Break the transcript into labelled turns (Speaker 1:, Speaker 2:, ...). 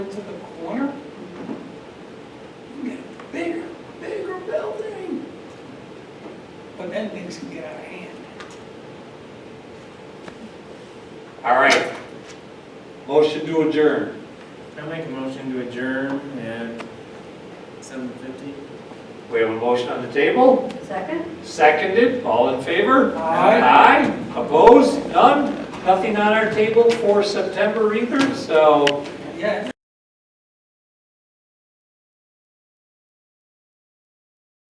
Speaker 1: into the corner, you can get a bigger, bigger building. But then things can get out of hand.
Speaker 2: All right. Motion to adjourn.
Speaker 3: I make a motion to adjourn at seven fifty.
Speaker 2: We have a motion on the table,
Speaker 4: Second?
Speaker 2: seconded, all in favor?
Speaker 1: Aye.
Speaker 2: Aye, opposed, none, nothing on our table for September either, so
Speaker 1: Yeah,